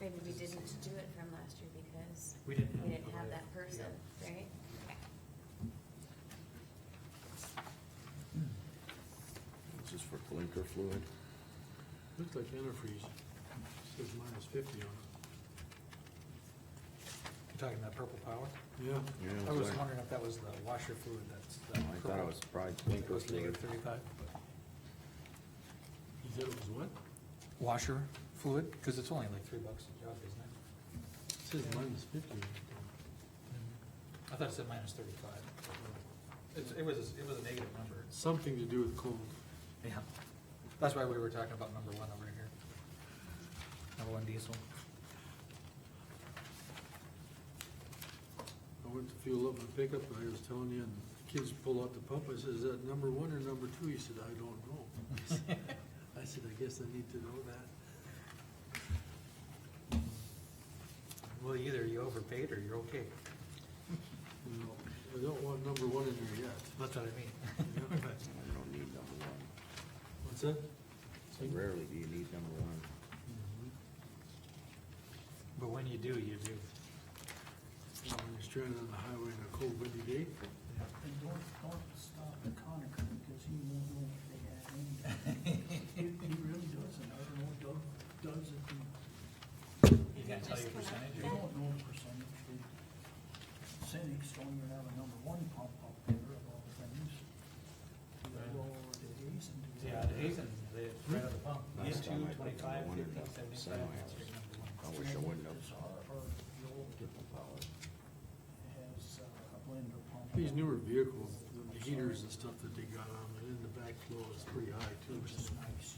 didn't do it from last year because We didn't have. we didn't have that Yeah. person, right? This is for blinker fluid. Looks like antifreeze, says minus fifty on it. You're talking that purple power? Yeah, I Yeah, was sorry. wondering if that was the washer fluid that's. the Oh, I thought it purple. was probably It blinker was fluid. negative thirty-five, but he said it was what? washer fluid, because it's only like three bucks a job, isn't it? It Says minus fifty. on it. I thought it said minus thirty-five. It's, it was, it was a negative number. Something to do with cold. Yeah. That's why we were talking about number one over here. Number one diesel. I went to fuel up my pickup, and I was telling you, and the kids pull out the pump, I said, is that number one or number two? He said, I don't know. I said, I guess I need to know that. Well, either you overpaid or you're okay. You know, I don't want number one in there yet. That's what I Yeah. mean. You don't need number one. What's that? So rarely do you need number one. Mhm. But when you do, you do. Well, When you're stranded on the highway on a cold windy day, And don't, don't stop at Conacher because he won't know what they had in there. He, he really doesn't, I don't know, Doug, Doug's it, he You can't tell your percentage? he won't know the percentage, the cynics don't even have a number one pump up there of all things. Do they go over to Hazen? Do they- Yeah, at Hazen, they, right at the pump, you Hmm? Last two, time I picked twenty-five, up one fifty, and seventy-five. seven that's ounces. your number one. I wish I wouldn't have. It's our, our, the old has uh, a blender pump. these newer vehicles, the heaters and stuff that they got on, and in the back flow is pretty high too. Which is nice.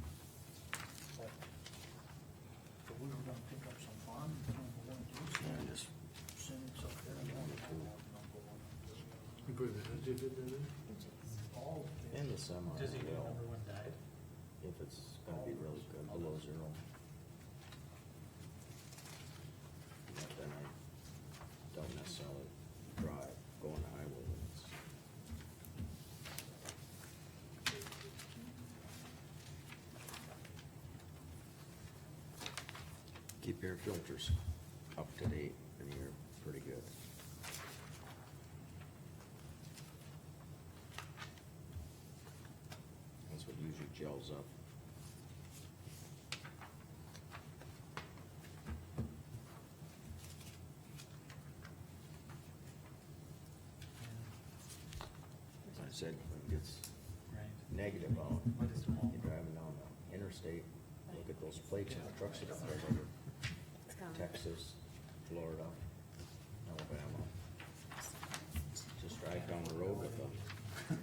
But but we were gonna pick up some farm, number one, two, Yeah, just send it up there, and have number one. You put an additive in there? All of in it, the semi, Does he do well, number one died? if it's gonna be really good, below zero. But then I don't necessarily drive, go on the highway when it's. Keep your filters up to date and you're pretty good. That's what usually gels up. I said, when it gets Right. negative out, What is tomorrow? you're driving down the interstate, look at those plates on the trucks that are all over It's gone. Texas, Florida, Alabama. Just drive down the road with a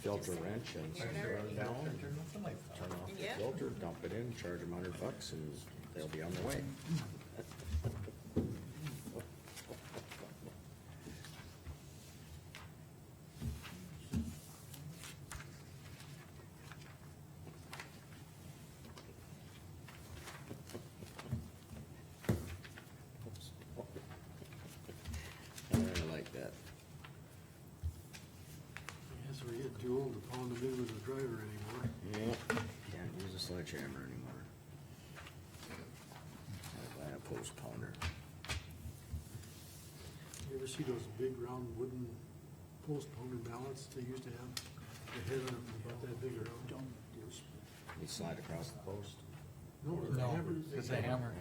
filter wrench and turn down, and Turn off the lights. turn off the Yeah. filter, dump it in, charge them hundred bucks, and they'll be on their way. I really like that. I guess we're getting too old to pound them in with a driver anymore. Yep. Can't use a sledgehammer anymore. I buy a post pounder. You ever see those big round wooden post pony balance they used to have? They had them about that big around. done with this, You slide across the post. No, it was No, hammers. it's a hammer.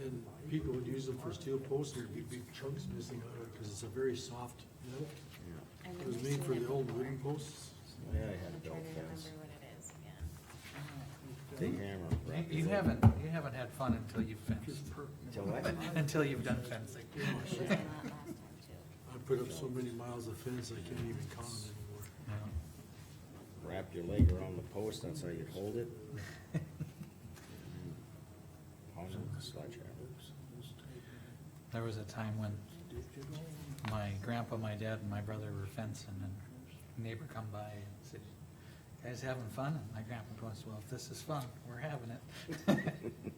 And people would use them for steel posts, and there'd be big chunks missing out of it, cause it's a very soft metal. I've Yeah. It never was seen made for the it old before. wooden posts. Yeah, I had I'm a trying belt to fast. remember what it is, yeah. but, uh, Big You- hammer. You rocket haven't, you haven't had fun until you've fenced, Till what? until you've done fencing. It was a lot last time too. I put up so many miles of fence, I can't even count them anymore. Wrap your leg around the post, that's how you hold it. Pound it with a sledgehammer. There was a time when my grandpa, my dad, and my brother were fencing, and a neighbor come by and said, "You "Guys having fun?" And my grandpa goes, "Well, if this is fun, we're having it."